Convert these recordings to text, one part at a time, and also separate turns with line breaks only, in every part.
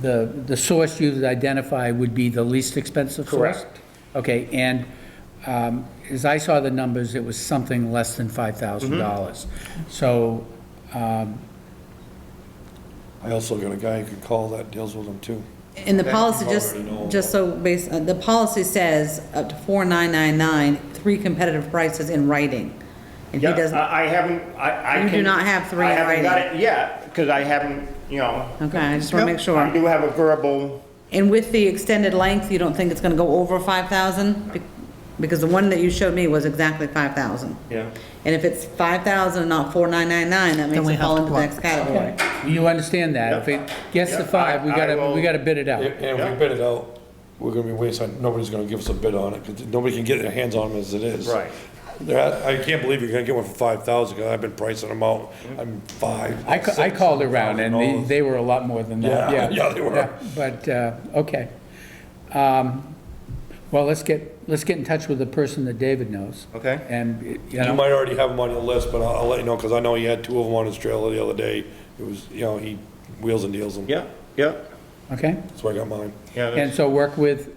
the, the source you identify would be the least expensive source?
Correct.
Okay, and um, as I saw the numbers, it was something less than $5,000. So,
I also got a guy who could call that deals with them too.
And the
That
policy,
could
just,
already know.
just so based, uh, the policy says up to 4999, three competitive prices in writing. And he
Yeah,
doesn't,
I I haven't, I, I
You do
can-
not have three
I
in
haven't got
writing.
it yet, because I haven't, you know.
okay, I just want to
I
make sure.
do have a verbal,
And with the extended length, you don't think it's going to go over 5,000? Be- Because the one that you showed me was exactly 5,000.
yeah.
And if it's 5,000 and not 4999, that makes
we
it fall
have
into
to
the
look.
next category.
you understand that? If it gets to
Yep.
five, we
I- I
gotta,
will-
we gotta bid it out.
And and
Yeah.
we bid it out, we're gonna be wasting, nobody's gonna give us a bid on it, because nobody can get their hands on them as it is.
Right.
That- I can't believe you're gonna get one for five thousand, because I've been pricing them out,
Mm-hmm.
I'm five.
I, ca- I
six,
called around and they,
$7,000.
they were a lot more than that, yeah.
Yeah, yeah, they were.
But, uh, okay. Um, Well, let's get, let's get in touch with the person that David knows.
Okay.
And, you
You
know,
might already have them on your list, but I'll, I'll let you know, because I know he had two of them on his trailer the other day, it was, you know, he wheels and deals them.
Yeah, yeah,
okay?
That's where I got mine.
yeah.
And
that's-
so work with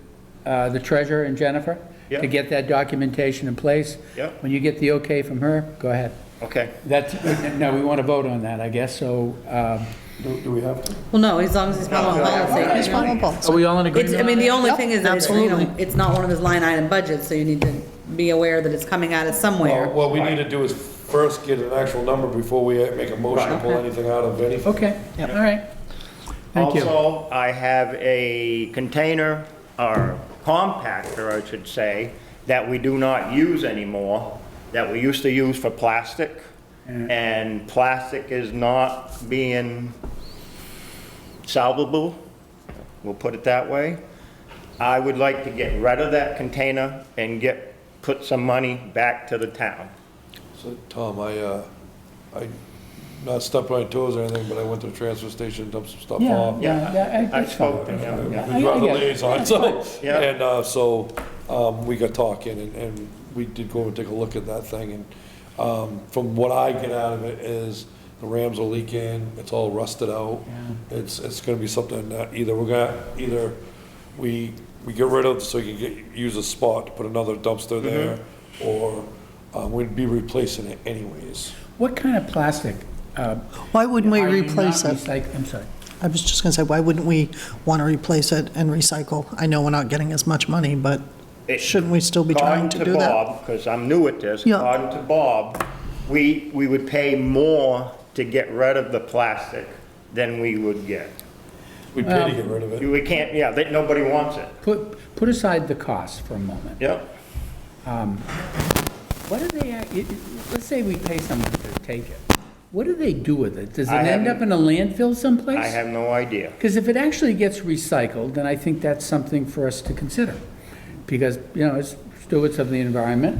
uh, the treasurer and Jennifer
Yeah.
to get that documentation in place.
Yeah.
When you get the okay from her, go ahead.
Okay,
That's, no, we want to vote on that, I guess, so, um,
Do, do we have to?
Well, no, as long as he's following
It's
policy.
vulnerable.
are we all in agreement
It's, I mean, the only
Yep,
thing is that, it's, you know,
absolutely.
it's not one of his line item budgets, so you need to be aware that it's coming out of somewhere.
Well, Uh, what we need to do is first get an actual number before we uh, make a motion to pull anything out of anything.
Okay, all right. Thank you.
Also, I have a container, or compactor, I should say, that we do not use anymore, that we used to use for plastic. And plastic is not being salvable, we'll put it that way. I would like to get rid of that container and get, put some money back to the town.
So, Tom, I, uh, I, not stepping on my toes or anything, but I went to the transfer station, dumped some stuff
Yeah,
off.
yeah, yeah, I-
I
that's fine.
spoke to him, yeah.
We brought the
I- I get it.
liaison, so,
Yeah.
and, uh, so, um, we got talking and, and we did go and take a look at that thing and, um, from what I get out of it is the rams are leaking, it's all rusted out. It's, it's gonna be something that either we're gonna, either we, we get rid of so you can get, use a spot to put another dumpster there or, um, we'd be replacing it anyways.
What kind of plastic? uh,
Why wouldn't we
are you
replace
not
it?
recyc- I'm sorry.
I was just going to say, why wouldn't we want to replace it and recycle? I know we're not getting as much money, but
It-
shouldn't we still be trying to do that?
Because I'm new at this,
Yeah.
according to Bob, we, we would pay more to get rid of the plastic than we would get.
We
Um,
pay to get rid of it.
We can't, yeah, that, nobody wants it.
Put, put aside the cost for a moment.
Yep.
What do they, act- it- it- let's say we pay someone to take it. What do they do with it? Does it
I
end up in
haven't-
a landfill someplace?
I have no idea.
Because if it actually gets recycled, then I think that's something for us to consider. Because, you know, as stewards of the environment,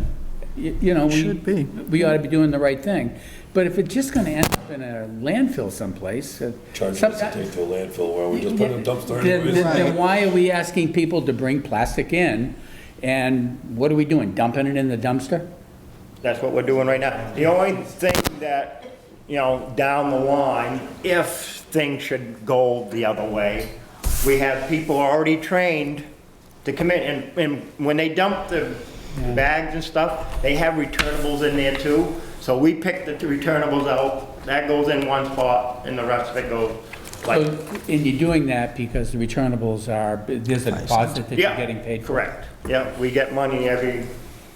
y- you know, we...
Should be.
We ought to be doing the right thing. But if it's just going to end up in a landfill someplace... uh,
Charge
some-
us to take to a landfill where we just put it in a dumpster
Then-
anyways.
Then then why are we asking people to bring plastic in? And what are we doing, dumping it in the dumpster?
That's what we're doing right now. The only thing that, you know, down the line, if things should go the other way, we have people already trained to come in, and, and when they dump the bags and stuff, they have returnables in there too. So we pick the returnables out, that goes in one spot, and the rest of it goes, like,
So, And you're doing that because the returnables are, there's a deposit that you're
yeah.
getting paid for.
Correct, yeah, we get money every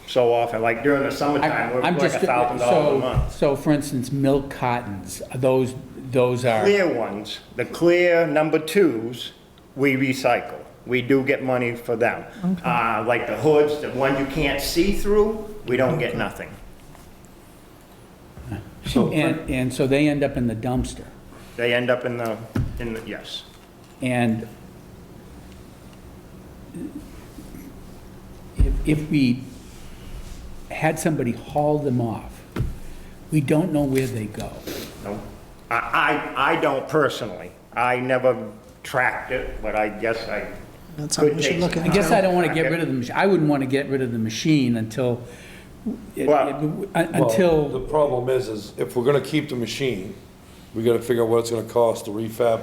so often, like during the summertime, we're
I'm
like
just
a thousand dollars a
so-
month.
So, for instance, milk cartons, those, those are,
clear ones, the clear number twos, we recycle. We do get money for them. Uh, Like the hoods, the one you can't see through, we don't get nothing.
and, and so they end up in the dumpster.
They end up in the, in the, yes.
And if, if we had somebody haul them off, we don't know where they go.
No. I, I, I don't personally. I never tracked it, but I guess I
That's something
could
we should
take
look
some
at.
I guess I don't want to get rid of the, mach- I wouldn't want to get rid of the machine until, it- it-
Well-
un- until.
Well, The problem is, is if we're gonna keep the machine, we gotta figure out what it's gonna cost to refab